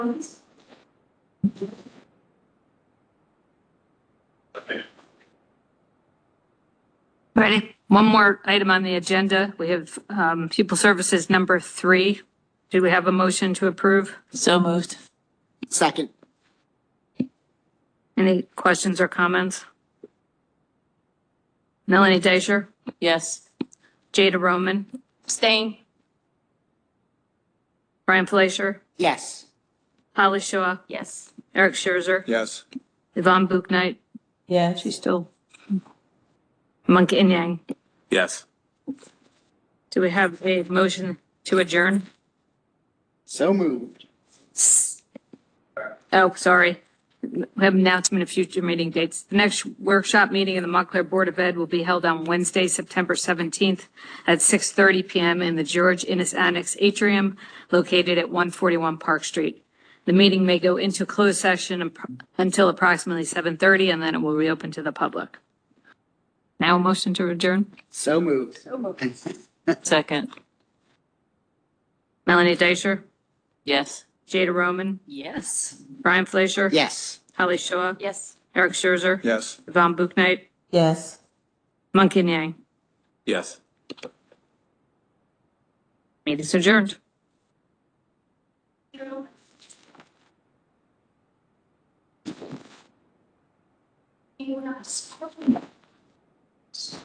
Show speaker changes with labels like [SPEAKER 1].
[SPEAKER 1] Ready? One more item on the agenda. We have um, Pupil Services number three. Do we have a motion to approve?
[SPEAKER 2] So moved.
[SPEAKER 3] Second,
[SPEAKER 1] Any questions or comments? Melanie Deisher,
[SPEAKER 2] Yes.
[SPEAKER 1] Jada Roman,
[SPEAKER 2] Abstain.
[SPEAKER 1] Brian Fleischer,
[SPEAKER 3] yes.
[SPEAKER 1] Holly Shaw,
[SPEAKER 2] Yes.
[SPEAKER 1] Eric Scherzer,
[SPEAKER 4] Yes.
[SPEAKER 1] Yvonne Buchnight,
[SPEAKER 2] Yeah, she's still.
[SPEAKER 1] Monk and Yang.
[SPEAKER 4] Yes.
[SPEAKER 1] Do we have a motion to adjourn?
[SPEAKER 3] So moved.
[SPEAKER 1] Oh, sorry. We have an announcement of future meeting dates. The next workshop meeting of the Montclair Board of Ed will be held on Wednesday, September 17th at 6:30 PM in the George Innes Annex Atrium located at 141 Park Street. The meeting may go into closed session ap- until approximately 7:30 and then it will reopen to the public. Now a motion to adjourn.
[SPEAKER 3] So moved.
[SPEAKER 2] Second.
[SPEAKER 1] Melanie Deisher,
[SPEAKER 2] Yes.
[SPEAKER 1] Jada Roman,
[SPEAKER 2] Yes.
[SPEAKER 1] Brian Fleischer.
[SPEAKER 3] Yes.
[SPEAKER 1] Holly Shaw,
[SPEAKER 2] Yes.
[SPEAKER 1] Eric Scherzer,
[SPEAKER 4] Yes.
[SPEAKER 1] Yvonne Buchnight,
[SPEAKER 2] Yes.
[SPEAKER 1] Monk and Yang.
[SPEAKER 4] Yes.
[SPEAKER 1] Meeting is adjourned.